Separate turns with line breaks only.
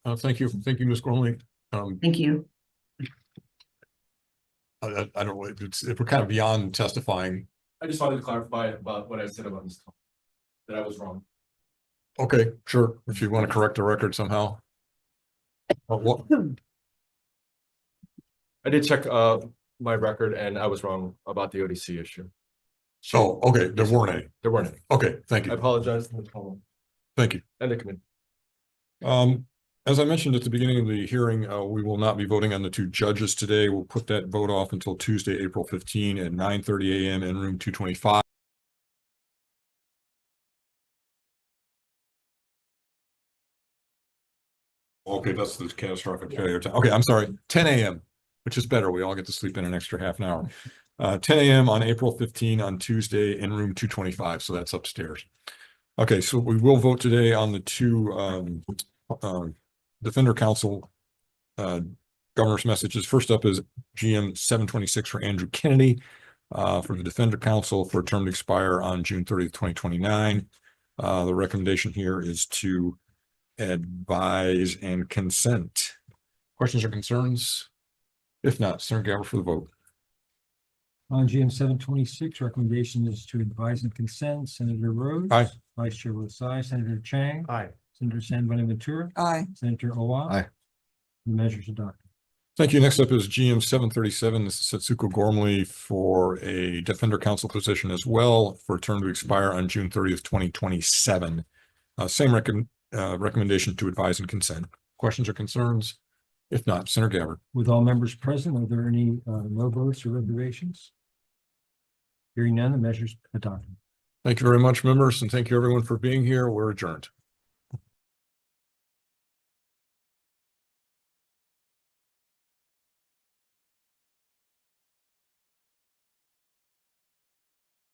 Uh, thank you, thank you, Ms. Gormley. Um,
Thank you.
I, I, I don't, know, if it's, if we're kind of beyond testifying,
I just wanted to clarify about what I said about this. call, That I was wrong.
okay, sure, if you want to correct the record somehow. Uh, what,
I did check uh my record and I was wrong about the ODC issue.
so, okay, there weren't any.
There weren't any.
Okay, thank you,
I apologize to the panel
thank you.
and the committee.
Um, as I mentioned at the beginning of the hearing, uh, we will not be voting on the two judges today. We'll put that vote off until Tuesday, April fifteen at nine thirty AM in room two twenty-five. Okay, that's the catastrophic failure time. Okay, I'm sorry, ten AM, which is better. We all get to sleep in an extra half an hour. Uh, ten AM on April fifteen on Tuesday in room two twenty-five, so that's upstairs. Okay, so we will vote today on the two um um Defender Council uh governor's messages. First up is GM seven twenty-six for Andrew Kennedy uh for the Defender Council for a term to expire on June thirtieth, twenty twenty-nine. Uh, the recommendation here is to advise and consent. Questions or concerns? If not, Senator Gabbard for the vote.
On GM seven twenty-six, recommendation is to advise and consent. Senator Rhodes.
Aye.
Vice Chair votes aye. Senator Chang.
Aye.
Senator San Bonaventura.
Aye.
Senator Owa.
Aye.
The measures adopted.
Thank you. Next up is GM seven thirty-seven. This is Setsuko Gormley for a Defender Council position as well for a term to expire on June thirtieth, twenty twenty-seven. Uh, same recommend, uh, recommendation to advise and consent. Questions or concerns? If not, Senator Gabbard.
With all members present, are there any uh, no votes or reservations? Hearing none, the measures adopted.
Thank you very much, members, and thank you everyone for being here. We're adjourned.